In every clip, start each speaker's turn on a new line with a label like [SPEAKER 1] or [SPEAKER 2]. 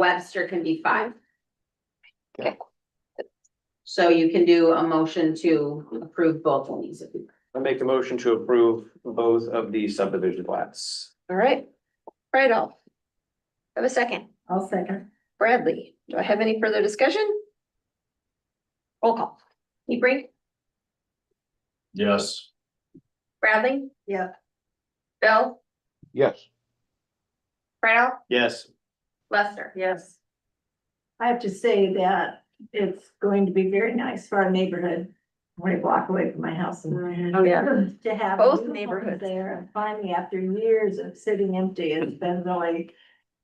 [SPEAKER 1] Webster can be five.
[SPEAKER 2] Okay.
[SPEAKER 1] So you can do a motion to approve both of these. if you-
[SPEAKER 3] I make the motion to approve both of the subdivision plats.
[SPEAKER 2] All right, right off. Have a second.
[SPEAKER 4] I'll second.
[SPEAKER 2] Bradley, do I have any further discussion? Roll call. Hebrink,
[SPEAKER 5] Yes.
[SPEAKER 2] Bradley?
[SPEAKER 4] Yeah.
[SPEAKER 2] Bill,
[SPEAKER 5] Yes.
[SPEAKER 2] right off,
[SPEAKER 3] Yes.
[SPEAKER 2] Lester.
[SPEAKER 4] Yes. I have to say that it's going to be very nice for our neighborhood, when I walk away from my house and
[SPEAKER 2] Oh,
[SPEAKER 4] to have.
[SPEAKER 2] Both
[SPEAKER 4] new homes
[SPEAKER 2] neighborhoods.
[SPEAKER 4] There and finally, after years of sitting empty, it's been really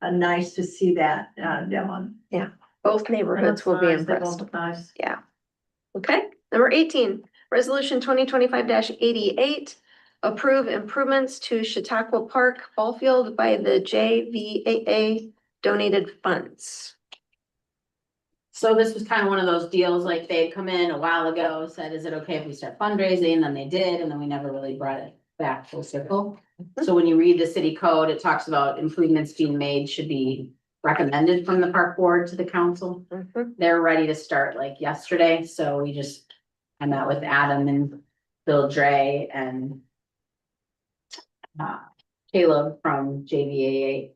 [SPEAKER 4] uh, nice to see that uh, done.
[SPEAKER 2] Both neighborhoods will be impressed.
[SPEAKER 4] Nice.
[SPEAKER 2] Okay, number eighteen, resolution twenty twenty-five eighty-eight. Approve improvements to Chautauqua Park Ball Field by the JVAA donated funds.
[SPEAKER 1] So this was kind of one of those deals, like they had come in a while ago, said, is it okay if we start fundraising? And then they did, and then we never really brought it back full circle. So when you read the city code, it talks about improvements being made should be recommended from the park board to the council. They're ready to start like yesterday, so we just, I met with Adam and Bill Dre and uh, Caleb from JVAA.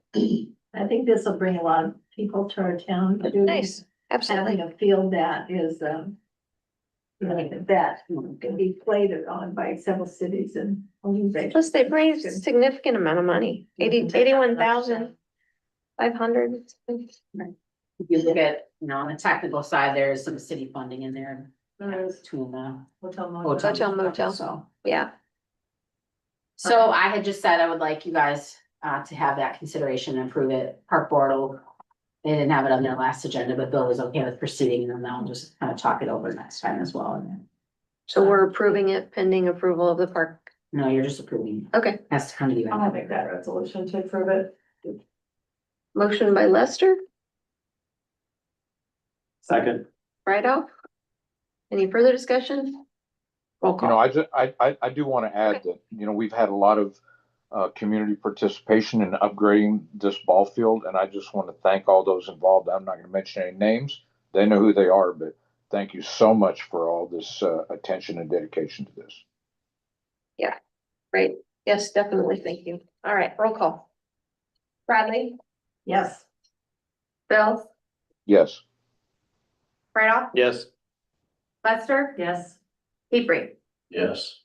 [SPEAKER 4] I think this will bring a lot of people to our town. too.
[SPEAKER 2] Nice, absolutely.
[SPEAKER 4] Having a field that is, um, you know, that can be played on by several cities and.
[SPEAKER 2] Plus, they've raised a significant amount of money, eighty, eighty-one thousand five hundred.
[SPEAKER 1] If you look at, you know, on the technical side, there is some city funding in there between the hotel.
[SPEAKER 2] Hotel motel.
[SPEAKER 1] So,
[SPEAKER 2] Yeah,
[SPEAKER 1] so I had just said I would like you guys uh to have that consideration and approve it. Park Board will. They didn't have it on their last agenda, but Bill was okay with proceeding and then they'll just kind of talk it over next time as well. And then,
[SPEAKER 2] so we're approving it pending approval of the park.
[SPEAKER 1] no, you're just approving.
[SPEAKER 2] Okay,
[SPEAKER 1] Has to come to you.
[SPEAKER 4] I'll make that resolution to approve it.
[SPEAKER 2] motion by Lester,
[SPEAKER 3] Second.
[SPEAKER 2] right off. Any further discussion? Roll
[SPEAKER 5] You know,
[SPEAKER 2] call.
[SPEAKER 5] I ju- I, I, I do want to add that, you know, we've had a lot of, uh, community participation in upgrading this ball field. And I just want to thank all those involved. I'm not going to mention any names. They know who they are, but thank you so much for all this, uh, attention and dedication to this.
[SPEAKER 2] Great, yes, definitely, thank you. All right, roll call. Bradley,
[SPEAKER 4] Yes.
[SPEAKER 2] Bill,
[SPEAKER 5] Yes.
[SPEAKER 2] right off,
[SPEAKER 3] Yes.
[SPEAKER 2] Lester,
[SPEAKER 4] Yes.
[SPEAKER 2] Hebrink.
[SPEAKER 5] Yes.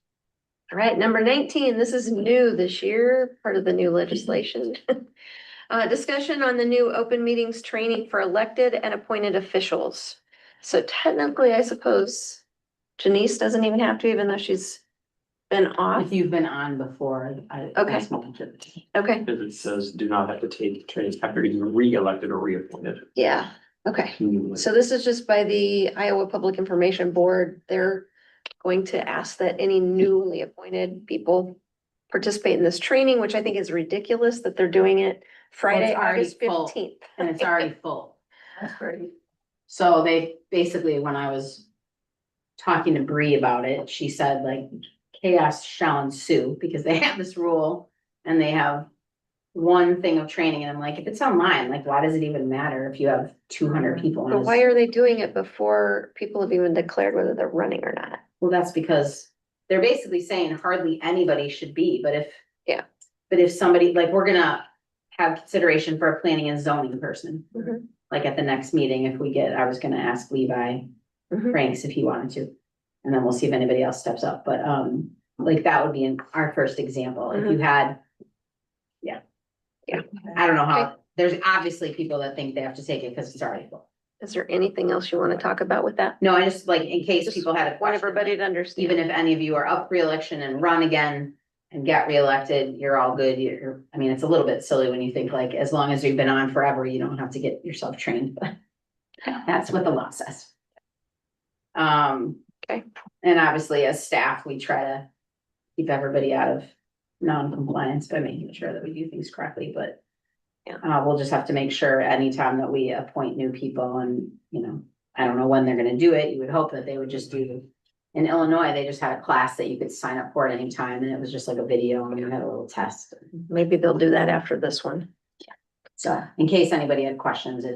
[SPEAKER 2] All right, number nineteen, this is new this year, part of the new legislation. Uh, discussion on the new open meetings training for elected and appointed officials. So technically, I suppose Janice doesn't even have to, even though she's been off.
[SPEAKER 1] If you've been on before, I.
[SPEAKER 2] Uh, Okay.
[SPEAKER 1] that's my intention.
[SPEAKER 2] Okay,
[SPEAKER 3] Because it says do not have to take trainings after being re-elected or reappointed.
[SPEAKER 2] yeah, okay.
[SPEAKER 3] Hmm.
[SPEAKER 2] So this is just by the Iowa Public Information Board. They're going to ask that any newly appointed people participate in this training, which I think is ridiculous that they're doing it Friday,
[SPEAKER 1] Well, it's
[SPEAKER 2] August
[SPEAKER 1] already full.
[SPEAKER 2] fifteenth.
[SPEAKER 1] And it's already full.
[SPEAKER 4] That's great.
[SPEAKER 1] So they, basically, when I was talking to Bree about it, she said like chaos shall ensue because they have this rule and they have one thing of training and I'm like, if it's online, like why does it even matter if you have two hundred people?
[SPEAKER 2] But
[SPEAKER 1] And
[SPEAKER 2] why
[SPEAKER 1] it's-
[SPEAKER 2] are they doing it before people have even declared whether they're running or not?
[SPEAKER 1] Well, that's because they're basically saying hardly anybody should be, but if.
[SPEAKER 2] Yeah.
[SPEAKER 1] But if somebody, like, we're gonna have consideration for a planning and zoning person.
[SPEAKER 2] Mhm.
[SPEAKER 1] Like at the next meeting, if we get, I was gonna ask Levi
[SPEAKER 2] Mhm.
[SPEAKER 1] Franks if he wanted to. And then we'll see if anybody else steps up, but um, like that would be in our first example, if you had. Yeah.
[SPEAKER 2] Mm-hmm. Yeah.
[SPEAKER 1] I don't know how, there's obviously people that think they have to take it because it's already full.
[SPEAKER 2] Is there anything else you want to talk about with that?
[SPEAKER 1] No, I just like, in case
[SPEAKER 2] Just
[SPEAKER 1] people had a
[SPEAKER 2] Want
[SPEAKER 1] question.
[SPEAKER 2] everybody to understand.
[SPEAKER 1] Even if any of you are up for election and run again and get reelected, you're all good. You're, I mean, it's a little bit silly when you think like, as long as you've been on forever, you don't have to get yourself trained, but that's what the law says. Um.
[SPEAKER 2] Okay.
[SPEAKER 1] And obviously, as staff, we try to keep everybody out of non-compliance by making sure that we do things correctly, but
[SPEAKER 2] Yeah.
[SPEAKER 1] uh, we'll just have to make sure anytime that we appoint new people and, you know, I don't know when they're gonna do it. You would hope that they would just do in Illinois, they just had a class that you could sign up for at any time, and it was just like a video, and you had a little test.
[SPEAKER 2] Maybe they'll do that after this one.
[SPEAKER 1] So in case anybody had questions, it